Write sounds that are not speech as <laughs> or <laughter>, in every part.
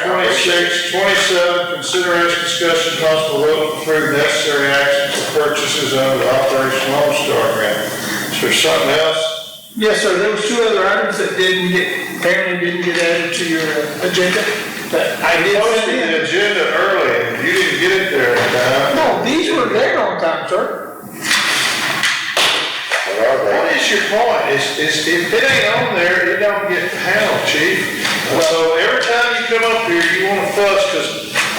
twenty-six, twenty-seven, consideration, discussion, possible vote to approve necessary actions for purchases under the Operation Lone Star grant. Is there something else? Yes, sir, there was two other items that didn't get, apparently didn't get added to your uh, agenda, but I did Posted send in. the agenda early, you didn't get it there in time. No, these were there on time, sir. What is your point? Is, is, if it ain't on there, it don't get handled, chief. So every time you come up here, you wanna fuss, cause,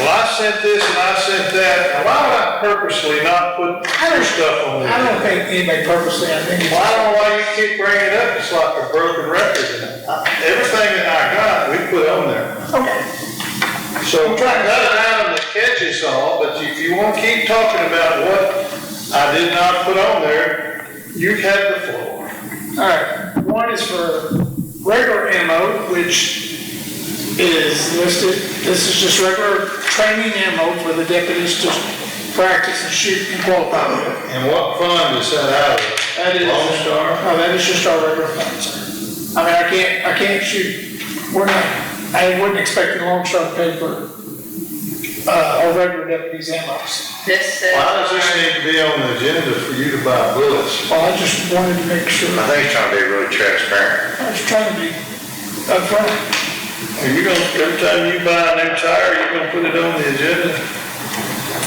well, I sent this and I sent that. Now, Why would I purposely not put your stuff on there? I don't think anybody purposely, I think. Well, I don't know why you keep bringing it up, it's like a broken record. Everything that I got, we put on there. Okay. So I'm trying to cut it out and catch us all, but if you wanna keep talking about what I did not put on there, you had the floor. All right, one is for regular ammo, which is listed, this is just regular training ammo for the deputies to practice and shoot and qualify with. And what fund is that out of? That is- Lone Star? No, that is just our regular funds. I mean, I can't, I can't shoot, we're not, I wouldn't expect the Lone Star to pay for, uh, our regular deputies ammo. This uh, says. Why does this need to be on the agenda for you to buy bullets? Well, I just wanted to make sure, I think it's trying to be really transparent. I was trying to be upfront. Are you gonna, every time you buy a new tire, you're gonna put it on the agenda? Is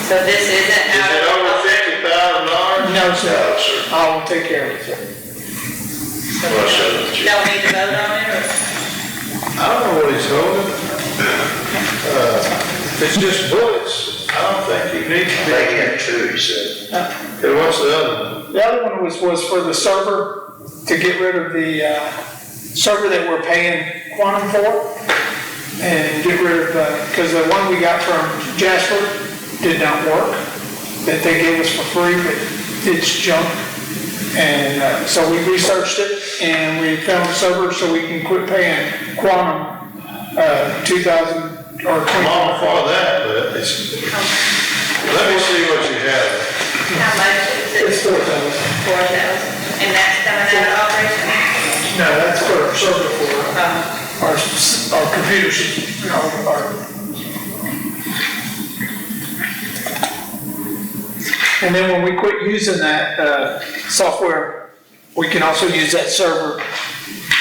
So this isn't out it of. over fifty thousand dollars? No, No, sir, sir. I will take care of it, sir. Well, so- Don't Uh, need to vote on it, or? I don't know what he's holding. Uh, if It's just bullets. I don't think you need to I be. think he had two, he said. And what's the other? one? The other one was, was for the server, to get rid of the uh, server that we're paying Quantum for, and get rid of, because the one we got from Jasper did not work, that they gave us for free, but it's junk. And uh, so we researched it, and we found a server, so we can quit paying Quantum uh, 2,000 or I'm all 20. for that, but it's, let me see what you have. How much It's is it? 4,000. Four thousand. And that's coming out of operation? No, that's for our server for uh, Um, our, s- our computer system, you know, our. And then when we quit using that, uh, software, we can also use that server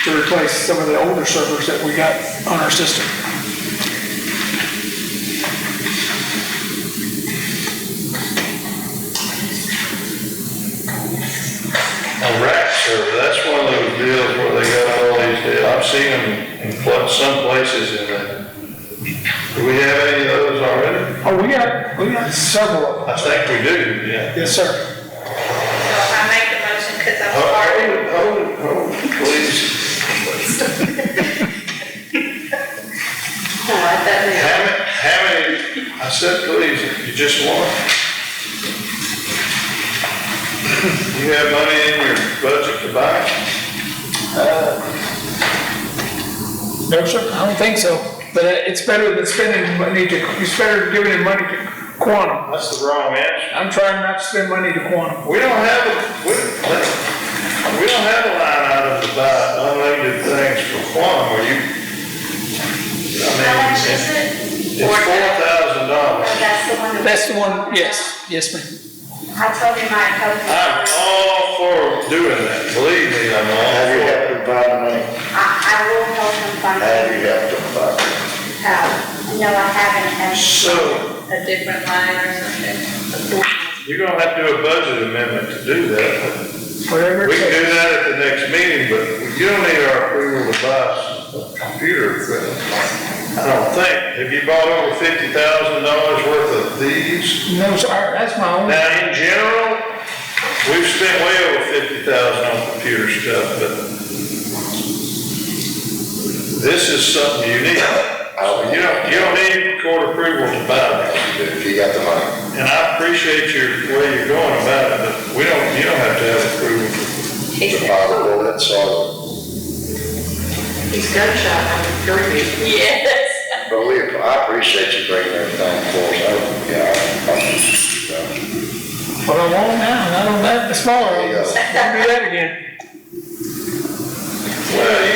to replace some of the older servers that we got on our system. A rack server, that's one of those deals where they got all these deals. I've seen them in pla- some places in there. Do we have any of those already? Oh, we got, we got several of them. I think we do, yeah. Yes, sir. so I make the motion, cause I'm Hold part. it, hold it, hold it, please. What, that How many, how many, I said please, if you just want. You have money in your budget to buy? No, sir, I don't think so. But uh, it's better than spending money to, it's better than giving money to Quantum. That's the wrong answer. I'm trying not to spend money to Quantum. We don't have a, we, we don't have a line item to buy unlimited things for Quantum, where you, I How mean, much it's is it? four thousand dollars. Oh, That's the one. that- That's the one, yes, yes, ma'am. I told him I told him. I'm all for doing that, believe me, I'm all Have you for it. helped him find money? I, I will help him find Have it. you helped him find money? Uh, No, I haven't. and- So, is a different line or something? you're gonna have to do a budget amendment to do that. Whatever. We can do that at the next meeting, but you don't need our approval to buy a computer equipment. I don't think, have you bought over fifty thousand dollars worth of these? No, sir, that's my only, Now, in general, we've spent way over fifty thousand on computer stuff, but this is something unique. Oh, So You don't, you don't need court approval to buy this. If you got the money. And I appreciate your, way you're going about it, but we don't, you don't have to have approval. The power, that's all. He's gunshot, I'm Yes. But we, I appreciate you bringing everything for us. I- Yeah, I- I'm, but I won't now, uh, <laughs> not on that, the smaller There one. you go. Don't do that again. Well, you